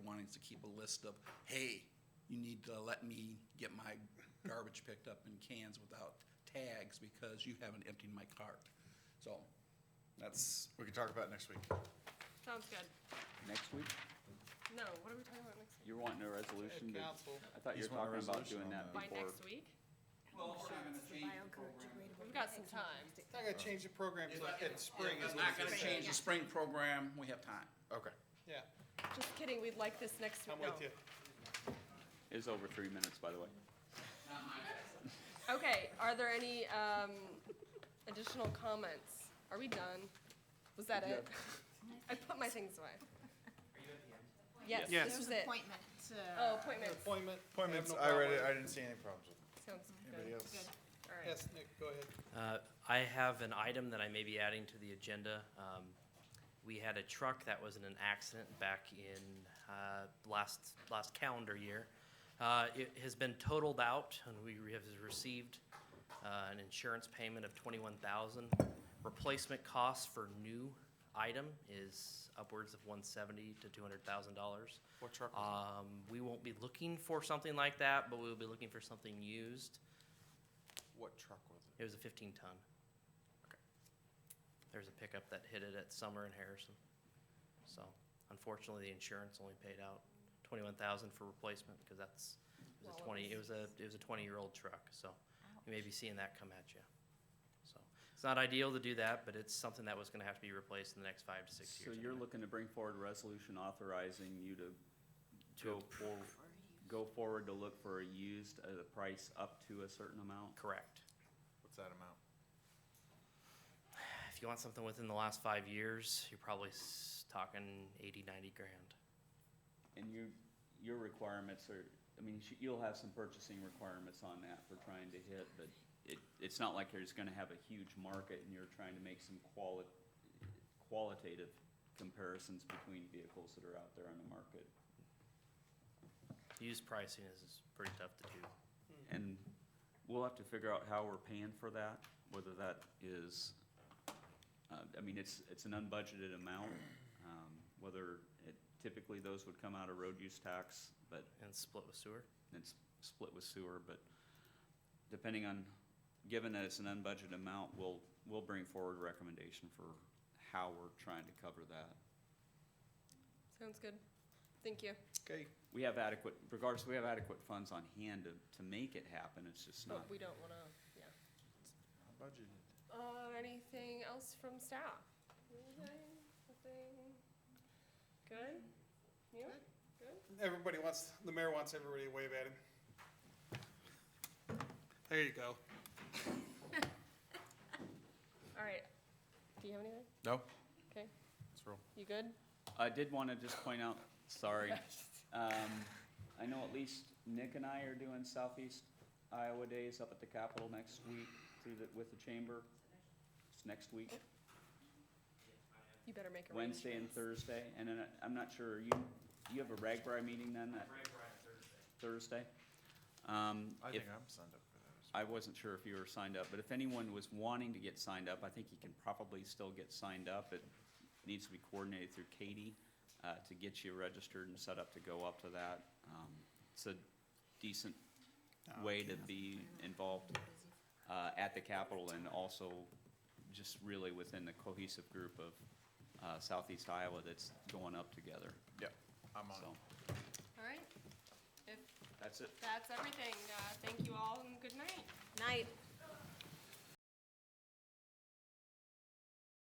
needs to keep a list of, hey, you need to let me get my garbage picked up in cans without tags because you haven't emptied my cart. So that's We can talk about it next week. Sounds good. Next week? No, what are we talking about next week? You're wanting a resolution? to- Council. I thought you He's were wanting a talking about resolution on doing that that. By before. next week? Well, we're not gonna change the program. We've got some time. It's not gonna change the program till in spring is We're what not it gonna is. change the spring program, we have time. Okay. Yeah, Just kidding, we'd like this next I'm week. with you. It's over three minutes, by the way. Okay, are there any, um, additional comments? Are we done? Was that it? I put my things away. Are you at the end? Yes, this was it. Appointment. Oh, appointments. Appointment. Appointments, have no I read it, problem. I didn't see any problems with it. Sounds Anybody good. else? All right. Yes, Nick, go ahead. Uh, I have an item that I may be adding to the agenda. Um, We had a truck that was in an accident back in uh, last, last calendar year. Uh, It has been totaled out, and we have received uh, an insurance payment of twenty-one thousand. Replacement cost for new item is upwards of one seventy to two hundred thousand dollars. What truck was Um, We won't be looking for something like that, but we'll be looking for something used. What truck was it? It was a fifteen ton. There's a pickup that hit it at Summer and Harrison. So unfortunately, the insurance only paid out twenty-one thousand for replacement because that's, it Well, was a it twenty, it was a, it was a twenty-year-old truck, so you may be seeing that come at you. So it's not ideal to do that, but it's something that was gonna have to be replaced in the next five to six So years. you're anyway. looking to bring forward a resolution authorizing you to go To for, go forward to look for a used at a price up to a certain amount? Correct. What's that amount? If you want something within the last five years, you're probably s- talking eighty, ninety grand. And your, your requirements are, I mean, sh- you'll have some purchasing requirements on that for trying to hit, but it, it's not like you're just gonna have a huge market and you're trying to make some quali- qualitative comparisons between vehicles that are out there on the market. Used pricing is is pretty tough to do. And we'll have to figure out how we're paying for that, whether that is, uh, I mean, it's, it's an unbudgeted amount. um, Whether, it- typically, those would come out of road use tax, but and split with sewer. and s- split with sewer, but depending on, given that it's an unbudgeted amount, we'll, we'll bring forward a recommendation for how we're trying to cover that. Sounds good. Thank you. Okay. We have adequate, regardless, we have adequate funds on hand to, to make it happen, it's just not. But we don't wanna, yeah. Budgeted. Uh, anything else from staff? Anything? Nothing? Good? You? Good? Everybody wants, the mayor wants everybody to wave at him. There you go. All right. Do you have anything? No, Okay. let's roll. You good? I did want to just point out, sorry, um, I know at least Nick and I are doing Southeast Iowa Days up at the Capitol next week through the, with the chamber. It's next week. You better make a Wednesday and Thursday, and then I- I'm not sure, you, you have a RAGBRAI meeting then? that Thursday. Um, I if, think I'm signed up for those. I wasn't sure if you were signed up, but if anyone was wanting to get signed up, I think you can probably still get signed up. It needs to be coordinated through Katie, uh, to get you registered and set up to go up to that. Um, It's a decent way to be involved, uh, at the Capitol and also just really within the cohesive group of, uh, Southeast Iowa that's going up together, Yeah, I'm on. so, All right. If that's it. that's everything, uh, thank you all and good night. Night.